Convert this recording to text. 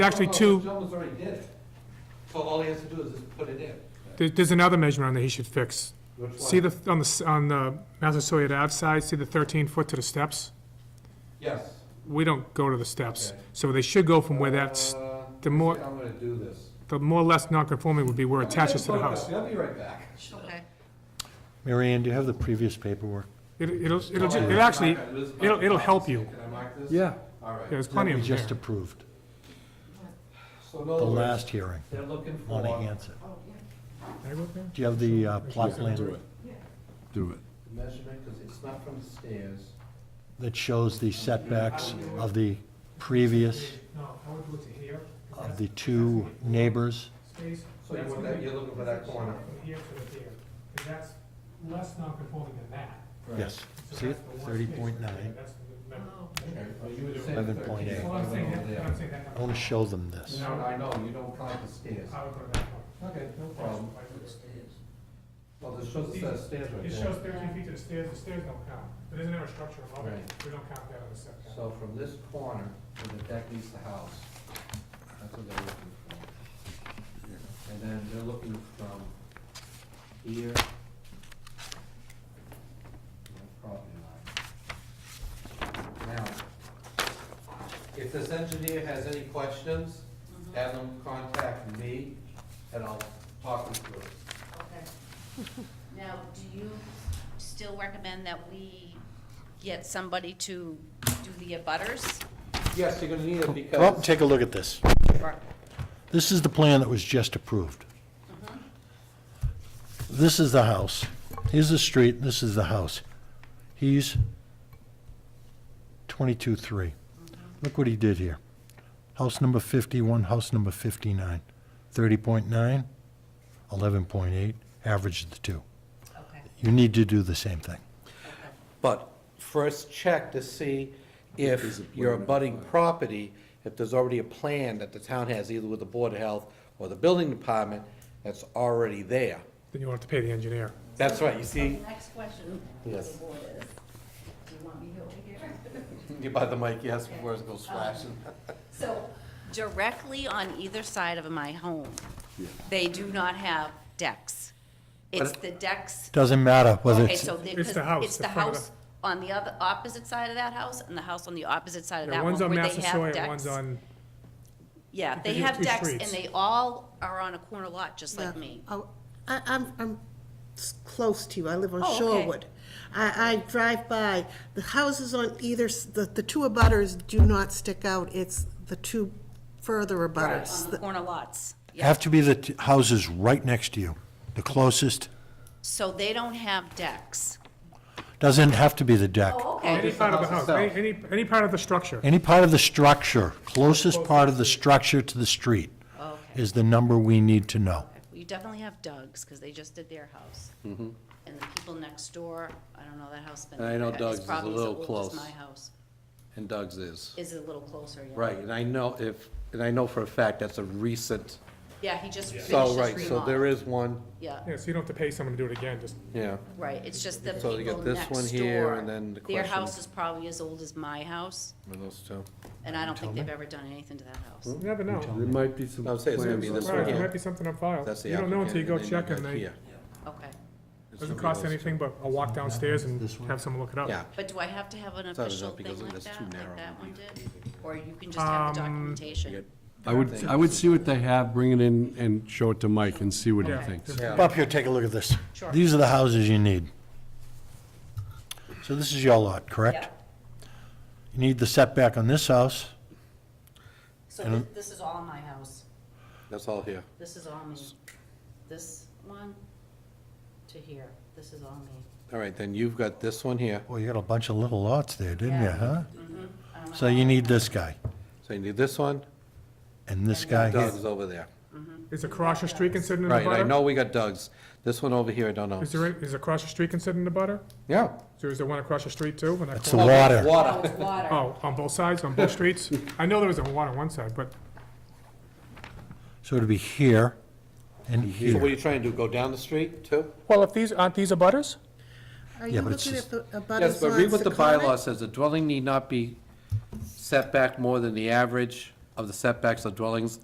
actually No, no, two, John was already did it. So all he has to do is just put it in. there- there's another measurement on there he should fix. Which See one? the, on the, s- on the Massasoit Ave side, see the 13 foot to the steps? Yes. We don't go to the steps, Okay. so they should go from where that's, Uh, the more- I'm gonna do this. the more or less non-conforming would be where it attaches to the house. I'll be right back. Okay. Mary Ann, do you have the previous paperwork? It- It'll, it'll, ju- it actually, it'll, it'll help you. Can I mark this? Yeah. All right. There's plenty That of we them Oh, just there. approved, So in the other words, last hearing they're looking on for Hanson. Oh, Can I go up there? Do you have the uh, plot Do plan it. Do it. the measurement, because it's not from the stairs. that shows the setbacks of the previous, No, I would look to here. of the two neighbors? space. So you want that, you're looking for that corner. From here to the there, because that's less non-conforming than that. Yes. So See it? that's the one Thirty space point right there. nine. That's the number. Okay, well, you were saying 11.8. 13, so Well, I'm I saying went that, over there. I'm saying that I number. want to show them this. No, I know, you don't count the stairs. I would go to that one. Okay, no problem. Well, this shows the stairs right It there. shows thirteen feet to the stairs, the stairs don't count, but isn't there a structure above it? Right. We don't count that on the setback. So from this corner, where the deck meets the house, that's what they're looking for. And then they're looking from here. to the Property line. Now, if this engineer has any questions, have them contact me, and I'll talk them through. it. Oh, Okay. Now, do you still recommend that we get somebody to do the abutters? Yes, you're gonna need it Well, because, take a look at this. Or- This is the plan that was just approved. This is the house. Here's the street, this is the house. He's 22-3. Look what he did here. House number 51, house number 59. 30.9, 11.8, average of the two. Okay, You need to do the same thing. but first check to see Is if it your plan abutting property, if there's already a plan that the town has, either with the Board of Health or the Building Department, that's already there. Then you'll have to pay the engineer. That's right, you So the see, next question for the Yes. board is, do you want me over here? you by the mic, yes, words go flashing. So directly on either side of my home, they do not have decks. It's the decks, Doesn't matter whether okay, it's, so they- It's the 'cause house, it's the the front of the- house on the other, opposite side of that house and the house on the opposite side of Yeah, that one One's on where they have Massasoit, decks. and one's on, Yeah, they Because you have have two decks, and streets. they all are on a corner lot, just like Yeah. me. Oh, I, I'm, I'm s- close to you, I live on Oh, okay. Shorewood. I, I drive by, the houses on either, s- the, the two abutters do not stick out, it's the two further abutters. On the corner lots, yeah. have to be the t- houses right next to you, the closest. So they don't have decks. Doesn't have to be the deck. Oh, okay. any part of the house house, itself. any, any- any part of the structure. Any part of the structure, closest part of the structure to the street Oh, Okay. is the number we need to know. You definitely have Doug's, because they just did their house. And the people next door, I don't know, that house been. And Mm-hmm. I know it's Doug's is a probably as little old as close. My house And Doug's is, is a little closer, yeah. right, and I know if, and I know for a fact that's a recent, Yeah, he just finished his so, remodel. Oh, right, so there is one, Yeah, Yeah, so you don't have to pay someone to do it again, just, yeah. right, it's just the So people you next got door. this one here, and then the Their question- house is probably as old as my house, With those two. and I don't think they've ever done anything to that house. you Hmm? never know. There might be some. I would say it's gonna be plans this on Right, one there here. might be something on file. That's the You don't know until you go applicant, check, and then and got they, here. Okay. It's doesn't gonna be cost those anything but a walk downstairs and have someone look it two. up. Yeah, But do I have to have an It's not as official though thing because like that's that, too like narrow. that one did? Or you can just have the documentation? I would, I would see what they have, bring it in and show it to Mike and see what he thinks. Yeah. Come up here, take a look at this. Sure. These are the houses you need. So this is your lot, correct? You need the setback on this house. So thi- this is all my house, that's all here. this is all me. This one to here, this is all me. All right, then you've got this one here, Boy, you got a bunch of little lots there, didn't you, Yeah. Mm-hmm. huh? I don't know So how you I- need this guy, so you need this one, and this guy here. Doug's over there. Is across the street considered in the Right, butter? I know we got Doug's, this one over here, I don't know. Is there, a- is across the street considered in the butter? Yeah. So is there one across the street too? when that That's the corner? water. Oh, Water, it's water. Oh, on both sides, on both streets? I know there was a one on one side, but So it'd be here and so what are here. you trying to do, go down the street too? Well, if these, aren't these abutters? Are Yeah, you but it's looking just- at the Yes, abutters but read lines what to the bylaw comment? says, the dwelling need not be set back more than the average of the setbacks of dwellings